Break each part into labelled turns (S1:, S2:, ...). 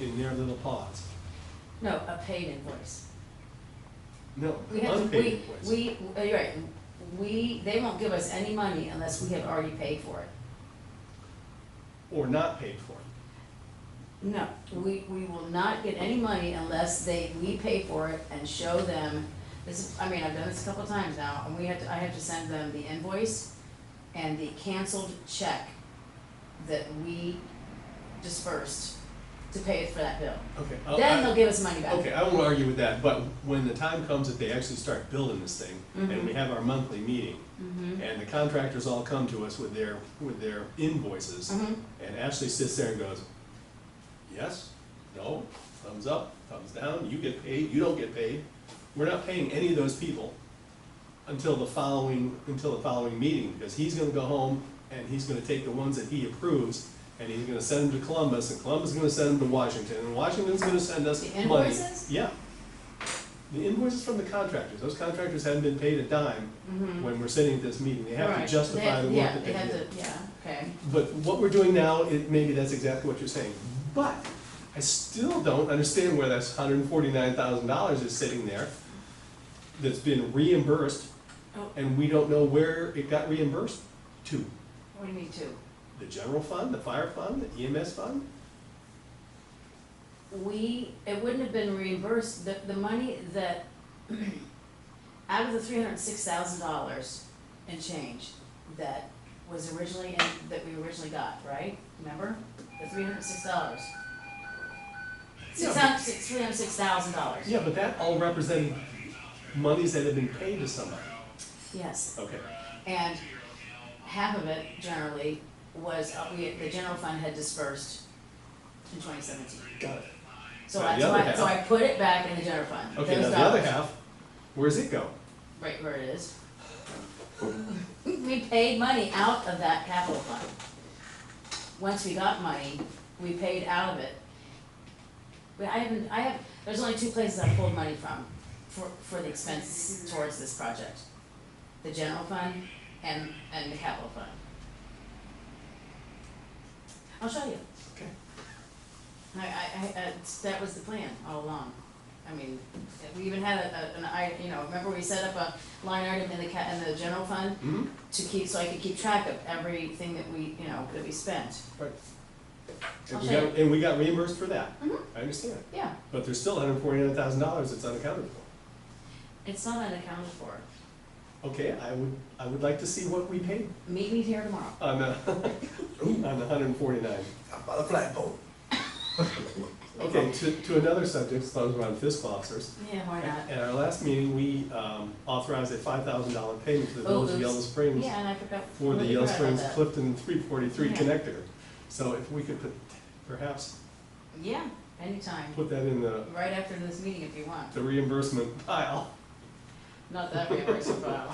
S1: in their little pots.
S2: No, a paid invoice.
S1: No,
S2: We have,
S1: unpaid
S2: we,
S1: invoice.
S2: we, uh, you're right, we, they won't give us any money unless we have already paid for it.
S1: Or not paid for.
S2: No, we, we will not get any money unless they, we pay for it and show them, this is, I mean, I've done this a couple of times now, and we have to, I have to send them the invoice and the canceled check that we dispersed to pay for that bill.
S1: Okay. I'll-
S2: Then
S1: Oh, I-
S2: they'll give us money back.
S1: Okay, I won't argue with that, but when the time comes that they actually start building this thing, and we
S2: Mhm.
S1: have our monthly meeting,
S2: Mhm.
S1: and the contractors all come to us with their, with their invoices,
S2: Mhm.
S1: and Ashley sits there and goes, yes, no, thumbs up, thumbs down, you get paid, you don't get paid. We're not paying any of those people until the following, until the following meeting, because he's gonna go home and he's gonna take the ones that he approves, and he's gonna send them to Columbus, and Columbus is gonna send them to Washington, and Washington's gonna send us
S2: The
S1: money.
S2: invoices?
S1: Yeah. The invoices from the contractors, those contractors haven't been paid a dime
S2: Mhm.
S1: when we're sitting at this meeting, they have to
S2: Right.
S1: justify the
S2: They-
S1: work that they did.
S2: Yeah, they have to, yeah, okay.
S1: But what we're doing now, it, maybe that's exactly what you're saying. But I still don't understand where that's hundred and forty-nine thousand dollars is sitting there that's been reimbursed,
S2: Oh.
S1: and we don't know where it got reimbursed to.
S2: What do you mean two?
S1: The general fund, the fire fund, the EMS fund?
S2: We, it wouldn't have been reimbursed, the, the money that, out of the three hundred and six thousand dollars and change that was originally, in- that we originally got, right? Remember? The three hundred and six dollars.
S1: Yeah,
S2: Six hundred, six, three hundred and six thousand dollars.
S1: Yeah, but that all represented monies that had been paid to somebody.
S2: Yes,
S1: Okay,
S2: and half of it generally was, uh, we, the general fund had dispersed in twenty seventeen.
S1: got it.
S2: So
S1: Now, the
S2: that's why,
S1: other
S2: so I
S1: half-
S2: put it back in the general fund.
S1: Okay, now
S2: Those
S1: the other
S2: dollars.
S1: half, where's it go?
S2: Right where it is. We paid money out of that capital fund. Once we got money, we paid out of it. But I haven't, I have, there's only two places I pulled money from, for, for the expenses towards this project. The general fund and, and the capital fund. I'll show you.
S1: Okay.
S2: I, I, I, that's- that was the plan all along. I mean, we even had a, a- an, I, you know, remember we set up a line item in the ca, in the general fund
S1: Hmm?
S2: to keep, so I could keep track of everything that we, you know, that we spent.
S1: Right. And
S2: I'll
S1: we
S2: show
S1: got, and we got reimbursed for that.
S2: Mhm.
S1: I understand.
S2: Yeah,
S1: But there's still hundred forty-nine thousand dollars that's unaccounted for.
S2: it's not unaccounted for.
S1: Okay, I would, I would like to see what we paid
S2: Meet me here tomorrow.
S1: on the, on the hundred and forty-nine.
S3: I bought a flatboat.
S1: Okay, to, to another subject, as long as we're on fiscal officers.
S2: Yeah, why not?
S1: At our last meeting, we um, authorized a five thousand dollar payment to the
S2: Oh,
S1: village of
S2: oops.
S1: Yellow Springs
S2: Yeah, and I forgot.
S1: for the
S2: I
S1: Yellow
S2: forgot about
S1: Springs
S2: that.
S1: Clifton three forty-three
S2: Yeah.
S1: connector. So if we could put- perhaps
S2: Yeah, anytime,
S1: put that in the,
S2: right after this meeting if you want,
S1: the reimbursement pile,
S2: not that reimbursement file.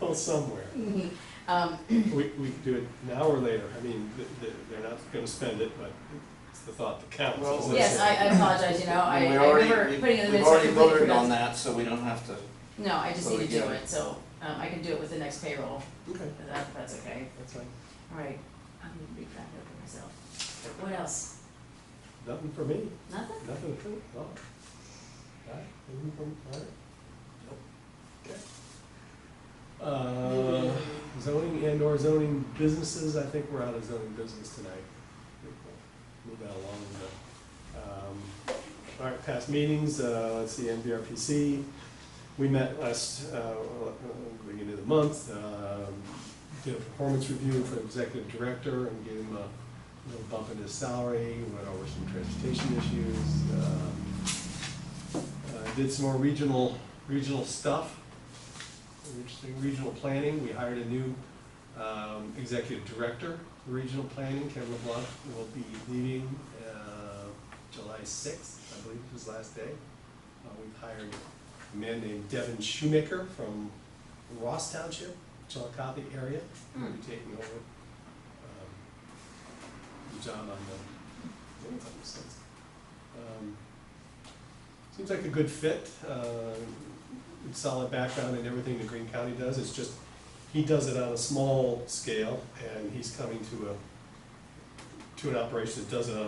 S1: well, somewhere.
S2: Um,
S1: We, we could do it now or later, I mean, th- th- they're not gonna spend it, but it's the thought that counts.
S3: Well- uh,
S1: isn't it?
S2: yes, I, I apologize, you know, I,
S3: And we
S2: I
S3: already-
S2: remember
S3: we-
S2: putting it in the
S3: We've
S2: minutes. I
S3: already
S2: completely
S3: voted
S2: forgot.
S3: on that, so we don't have to,
S2: No, I just
S3: So
S2: need to
S3: we
S2: do
S3: can-
S2: it, so, um, I can do it with the next payroll,
S1: Okay,
S2: if that, if that's okay,
S1: that's fine,
S2: all right, I'm gonna be proud of myself. What else?
S1: nothing for me,
S2: Nothing?
S1: nothing for, no. All right, anything from, all right? Okay. Uh, zoning and or zoning businesses, I think we're out of zoning business tonight. Move that along, but, um, all right, past meetings, uh, let's see, MVRPC, we met last, uh, beginning of the month, um, did a performance review for executive director and gave him a little bump in his salary, went over some transportation issues, uh, um, uh, did some more regional, regional stuff, interesting regional planning, we hired a new um, executive director for regional planning, Kevin LeBlanc, will be leaving uh, July sixth, I believe is his last day. Uh, We've hired a man named Devin Shoemaker from Ross Township, Chillicothe area, who'll be taking over um, the job on the, what was that, sixth? Um, Seems like a good fit, uh, solid background in everything that Green County does, it's just, he does it on a small scale, and he's coming to a, to an operation that does it on a